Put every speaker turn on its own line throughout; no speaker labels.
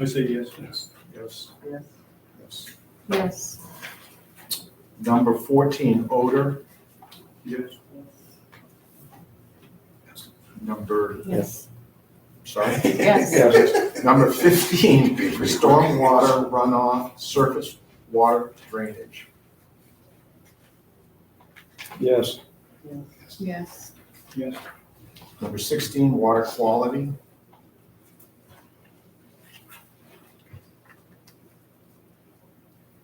I say yes.
Yes. Yes.
Yes.
Yes.
Yes.
Number fourteen, odor.
Yes.
Number,
Yes.
sorry?
Yes.
Number fifteen, stormwater runoff, surface water drainage.
Yes.
Yes.
Yes.
Yes.
Number sixteen, water quality.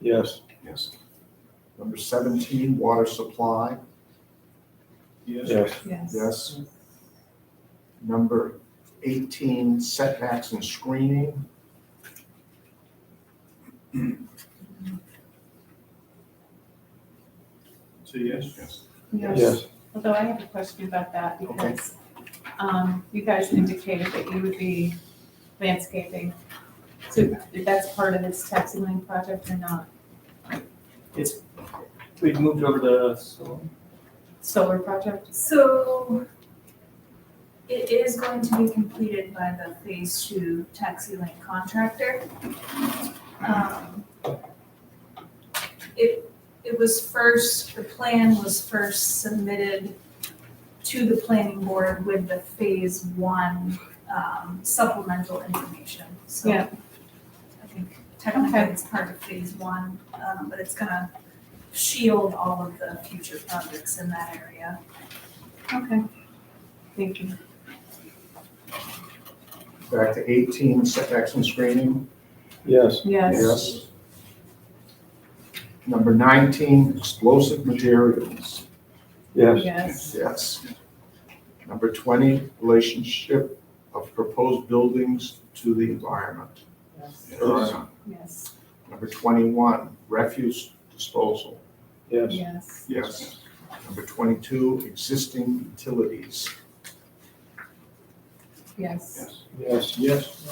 Yes.
Yes. Number seventeen, water supply.
Yes.
Yes.
Yes. Number eighteen, setbacks and screening.
Say yes.
Yes. Although I have a question about that because um, you guys indicated that you would be landscaping. So if that's part of this taxi lane project or not,
We've moved over to, so,
solar project?
So it is going to be completed by the phase two taxi lane contractor. Um, It, it was first, the plan was first submitted to the planning board with the phase one um, supplemental information. So
Yeah.
I think technically
Okay.
it's part of phase one, um, but it's gonna shield all of the future projects in that area.
Okay. Thank you.
Back to eighteen, setbacks and screening.
Yes.
Yes.
Number nineteen, explosive materials.
Yes.
Yes.
Yes. Number twenty, relationship of proposed buildings to the environment.
Yes.
There are none.
Yes.
Number twenty-one, refuse disposal.
Yes.
Yes.
Yes. Number twenty-two, existing utilities.
Yes.
Yes. Yes.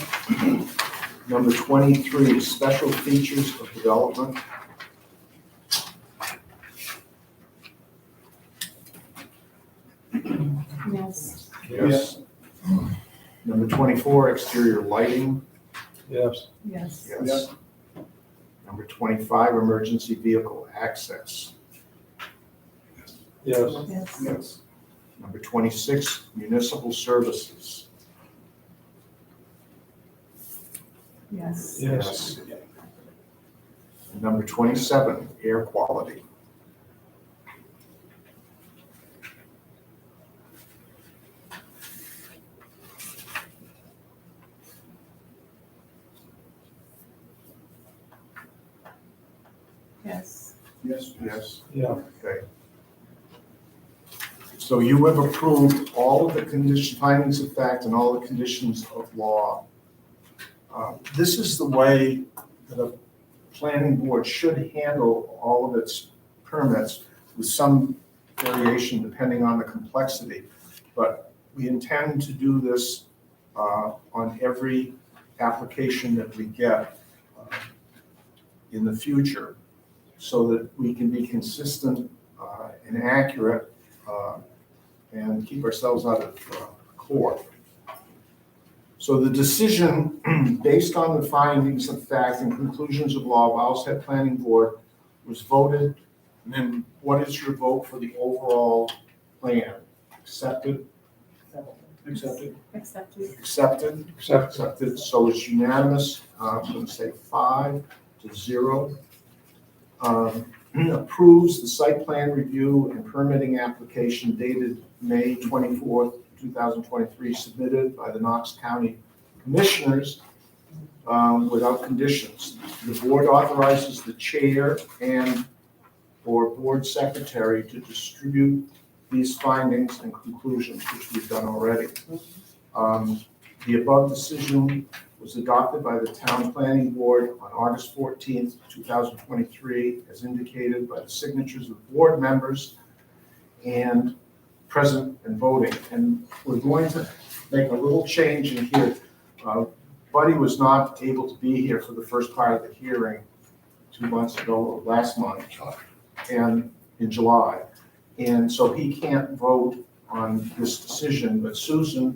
Number twenty-three, special features of development.
Yes.
Yes.
Number twenty-four, exterior lighting.
Yes.
Yes.
Yes. Number twenty-five, emergency vehicle access.
Yes.
Yes.
Yes. Number twenty-six, municipal services.
Yes.
Yes.
And Number twenty-seven, air quality.
Yes.
Yes.
Yes.
Yeah.
Okay. So you have approved all of the condition, findings of fact and all the conditions of law. Uh, This is the way that a planning board should handle all of its permits with some variation depending on the complexity. But we intend to do this uh, on every application that we get uh, in the future so that we can be consistent uh, and accurate uh, and keep ourselves out of uh, court. So the decision, based on the findings of fact and conclusions of law of Outset Planning Board, was voted. And then what is your vote for the overall plan? Accepted,
Accepted.
Accepted.
accepted?
Accepted.
Accepted, so it's unanimous, uh, I'm going to say five to zero. Um, Approves the site plan review and permitting application dated May twenty-fourth, two thousand twenty-three, submitted by the Knox County Commissioners um, without conditions. The board authorizes the chair and or board secretary to distribute these findings and conclusions, which we've done already. Um, the above decision was adopted by the town planning board on August fourteenth, two thousand twenty-three, as indicated by the signatures of board members and present and voting. And we're going to make a little change in here. Uh, Buddy was not able to be here for the first part of the hearing two months ago, or last month, and in July. And so he can't vote on this decision, but Susan